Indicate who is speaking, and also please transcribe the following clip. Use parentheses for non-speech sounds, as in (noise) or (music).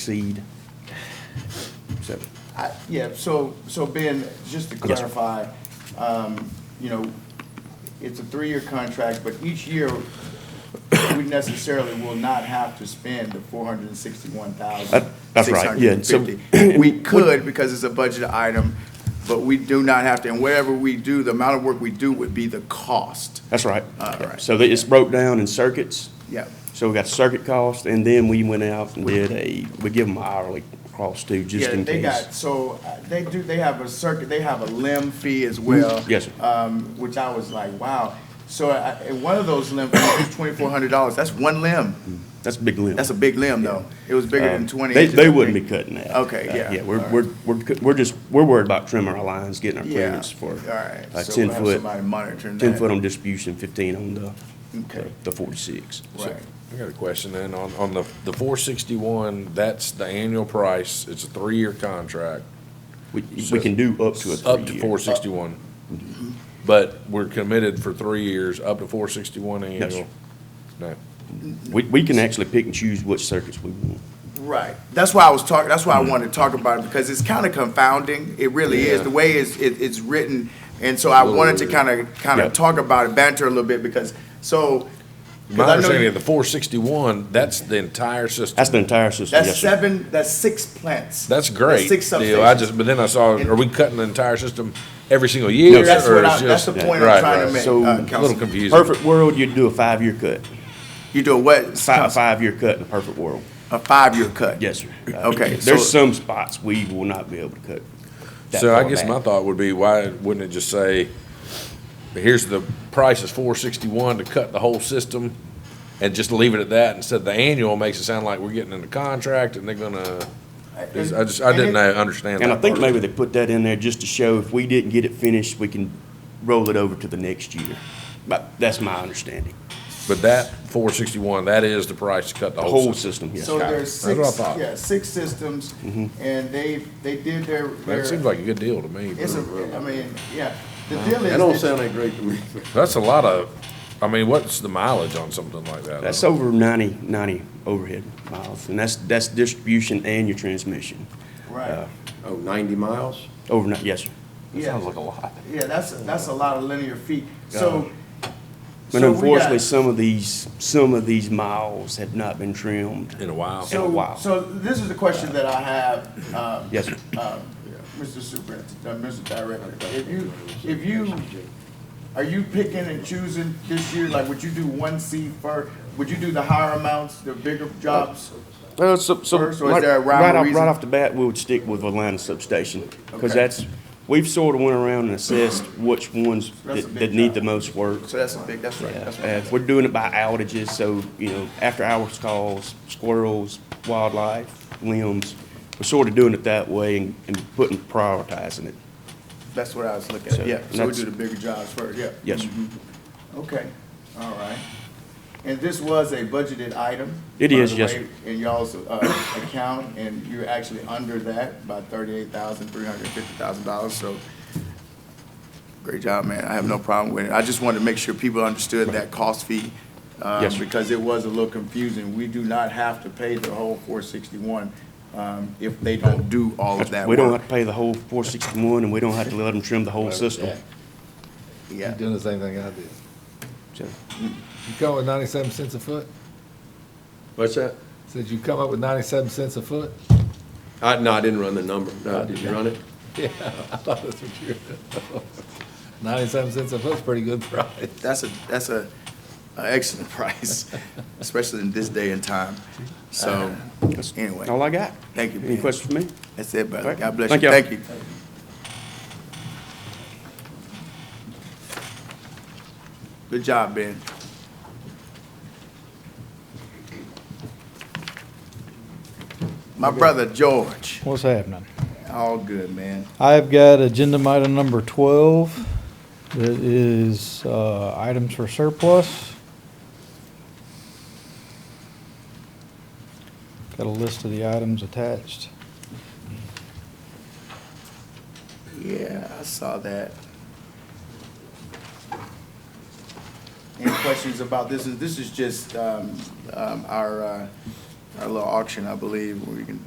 Speaker 1: exceed. So,
Speaker 2: I- Yeah, so, so Ben, just to
Speaker 1: Yes, sir.
Speaker 2: clarify, um, you know, it's a three-year contract, but each year, we necessarily will not have to spend the four hundred and sixty-one thousand.
Speaker 1: That- that's right, yeah, so- (clears throat)
Speaker 2: We could, because it's a budget item, but we do not have to, and whatever we do, the amount of work we do would be the cost.
Speaker 1: that's right.
Speaker 2: All right.
Speaker 1: So that it's broke down in circuits.
Speaker 2: Yeah,
Speaker 1: So we got circuit cost, and then we went out and did a, we give them hourly cost too, just
Speaker 2: yeah,
Speaker 1: in
Speaker 2: they
Speaker 1: case.
Speaker 2: got, so, uh, they do, they have a circuit, they have a limb fee as well.
Speaker 1: Yes, sir.
Speaker 2: um, which I was like, wow. So I, I- one of those limbs was twenty-four hundred dollars. That's one limb.
Speaker 1: That's a big limb.
Speaker 2: That's a big limb, though. It was bigger than
Speaker 1: Um,
Speaker 2: twenty.
Speaker 1: They,
Speaker 2: inches,
Speaker 1: they
Speaker 2: I
Speaker 1: wouldn't be
Speaker 2: think.
Speaker 1: cutting that.
Speaker 2: Okay,
Speaker 1: Uh,
Speaker 2: yeah,
Speaker 1: Yeah, we're,
Speaker 2: all right.
Speaker 1: we're, we're, cu- we're just, we're worried about trimming our lines, getting our
Speaker 2: Yeah.
Speaker 1: clearance for
Speaker 2: All right.
Speaker 1: a
Speaker 2: So
Speaker 1: ten
Speaker 2: we'll have
Speaker 1: foot,
Speaker 2: somebody monitoring that.
Speaker 1: ten foot on distribution, fifteen on the,
Speaker 2: Okay.
Speaker 1: the forty-six. So-
Speaker 2: Right.
Speaker 3: I got a question then, on, on the, the four sixty-one, that's the annual price, it's a three-year contract,
Speaker 1: We, we
Speaker 3: So-
Speaker 1: can do up to a three
Speaker 3: up to four sixty-one. But we're committed for three years, up to four sixty-one
Speaker 1: Yes, sir.
Speaker 3: annual. No,
Speaker 1: We, we can actually pick and choose which circuits we want.
Speaker 2: Right. That's why I was talking, that's why I wanted to talk about it, because it's kind of confounding. It really is.
Speaker 3: Yeah.
Speaker 2: The way it's, it- it's written. And so I
Speaker 3: Little
Speaker 2: wanted to
Speaker 3: weird.
Speaker 2: kind of, kind
Speaker 1: Yeah.
Speaker 2: of talk about it, banter a little bit, because, so. 'cause
Speaker 3: my
Speaker 2: I know
Speaker 3: understanding
Speaker 2: you-
Speaker 3: of the four sixty-one, that's the entire system.
Speaker 1: That's the entire system,
Speaker 2: That's
Speaker 1: yes, sir.
Speaker 2: seven, that's six plants.
Speaker 3: That's great
Speaker 2: Six
Speaker 3: deal, I
Speaker 2: substations.
Speaker 3: just, but then I saw,
Speaker 2: And-
Speaker 3: are we cutting the entire system every single year?
Speaker 2: That's
Speaker 3: or
Speaker 2: what I,
Speaker 3: it's
Speaker 2: that's the
Speaker 3: just-
Speaker 2: point
Speaker 3: Right,
Speaker 2: I'm trying to
Speaker 3: right.
Speaker 2: make,
Speaker 1: So,
Speaker 2: uh,
Speaker 3: A little
Speaker 2: Councilman.
Speaker 3: confusing.
Speaker 1: Perfect world, you'd do a five-year cut,
Speaker 2: You do a what?
Speaker 1: fi- five-year cut in a perfect world.
Speaker 2: A five-year cut?
Speaker 1: Yes, sir.
Speaker 2: Okay,
Speaker 1: There's
Speaker 2: so-
Speaker 1: some spots we will not be able to cut. that
Speaker 3: So I
Speaker 1: far
Speaker 3: guess
Speaker 1: back.
Speaker 3: my thought would be, why wouldn't it just say, here's the price is four sixty-one to cut the whole system? And just leave it at that instead the annual makes it sound like we're getting into contract and they're gonna, I just, I didn't know- understand that.
Speaker 1: And I think
Speaker 3: part.
Speaker 1: maybe they put that in there just to show if we didn't get it finished, we can roll it over to the next year. But that's my understanding.
Speaker 3: But that four sixty-one, that is the price to cut
Speaker 1: The
Speaker 3: the whole
Speaker 1: whole
Speaker 3: system.
Speaker 1: system, yes.
Speaker 2: So there's
Speaker 3: That's what I
Speaker 2: six,
Speaker 3: thought.
Speaker 2: yeah, six systems,
Speaker 4: Mm-hmm.
Speaker 2: and they, they did their,
Speaker 3: That seems
Speaker 2: their,
Speaker 3: like a good deal to me.
Speaker 2: it's
Speaker 3: but-
Speaker 2: a, I mean, yeah. The deal is.
Speaker 4: That don't
Speaker 2: that-
Speaker 4: sound that great to me.
Speaker 3: That's a lot of, I mean, what's the mileage on something like that?
Speaker 1: That's
Speaker 3: though?
Speaker 1: over 90, 90 overhead miles, and that's, that's distribution and your transmission.
Speaker 2: Right,
Speaker 4: Oh, 90 miles?
Speaker 1: Overnight, yes, sir.
Speaker 2: Yeah. sounds like
Speaker 1: a lot.
Speaker 2: yeah, that's, that's a lot of linear feet, so.
Speaker 1: And
Speaker 2: so we got-
Speaker 1: unfortunately, some of these, some of these miles had not been trimmed.
Speaker 3: In a while.
Speaker 1: a
Speaker 2: So,
Speaker 1: while.
Speaker 2: so this is the question that I have, um,
Speaker 1: Yes, sir.
Speaker 2: um, Mr. Superintendent, uh, Mr. Director, if you, if you, are you picking and choosing this year, like, would you do one C first? Would you do the higher amounts, the bigger jobs?
Speaker 1: Uh, so, so.
Speaker 2: First, or is
Speaker 1: right-
Speaker 2: there a rhyme or
Speaker 1: right off-
Speaker 2: reason?
Speaker 1: Right off the bat, we would stick with Atlanta substation,
Speaker 2: Okay.
Speaker 1: because that's, we've sort of went around and assessed which ones
Speaker 2: That's a
Speaker 1: that,
Speaker 2: big
Speaker 1: that need
Speaker 2: job.
Speaker 1: the most work.
Speaker 2: So that's a big, that's right, that's
Speaker 1: Uh,
Speaker 2: right.
Speaker 1: we're doing it by outages, so, you know, after hours calls, squirrels, wildlife, limbs, we're sort of doing it that way and, and putting, prioritizing it.
Speaker 2: That's what I was looking
Speaker 1: So
Speaker 2: at, yeah, so we
Speaker 1: that's-
Speaker 2: do the bigger jobs first, yeah. Mm-hmm.
Speaker 1: Yes, sir.
Speaker 2: Okay, all right. And this was a budgeted item?
Speaker 1: It
Speaker 2: by
Speaker 1: is,
Speaker 2: the
Speaker 1: yes,
Speaker 2: way, In y'all's, uh, account, and you're actually under that by thirty-eight thousand, three hundred and fifty thousand dollars, so great job, man. I have no problem with it. I just wanted to make sure people understood that cost fee. um,
Speaker 1: Yes, sir.
Speaker 2: Because it was a little confusing. We do not have to pay the whole four sixty-one, um, if they don't do all of that
Speaker 1: We don't
Speaker 2: work.
Speaker 1: have to pay the whole four sixty-one, and we don't have to let them trim the whole system.
Speaker 2: Yeah.
Speaker 5: Doing the same thing I did.
Speaker 1: So,
Speaker 5: You come up with ninety-seven cents a foot?
Speaker 4: What's that?
Speaker 5: Said you come up with ninety-seven cents a foot?
Speaker 4: I, no, I didn't run the number. No, did you run it?
Speaker 5: Yeah, I thought that's what you were. Ninety-seven cents a foot's pretty good price.
Speaker 2: That's a, that's a, a excellent (laughs) price, especially in this day and time. So,
Speaker 1: that's
Speaker 2: anyway,
Speaker 1: All Uh, I got.
Speaker 2: thank you,
Speaker 1: Any
Speaker 2: Ben.
Speaker 1: questions for me?
Speaker 2: That's it, brother.
Speaker 1: Right.
Speaker 2: God bless you.
Speaker 1: Thank y'all.
Speaker 2: Thank you. Good job, Ben. My brother George,
Speaker 6: What's happening?
Speaker 2: all good, man.
Speaker 6: I've got agenda item number twelve. That is, uh, items for surplus. Got a list of the items attached.
Speaker 2: Yeah, I saw that. Any questions about this? This is just um, um, our uh, our little auction, I believe, where you can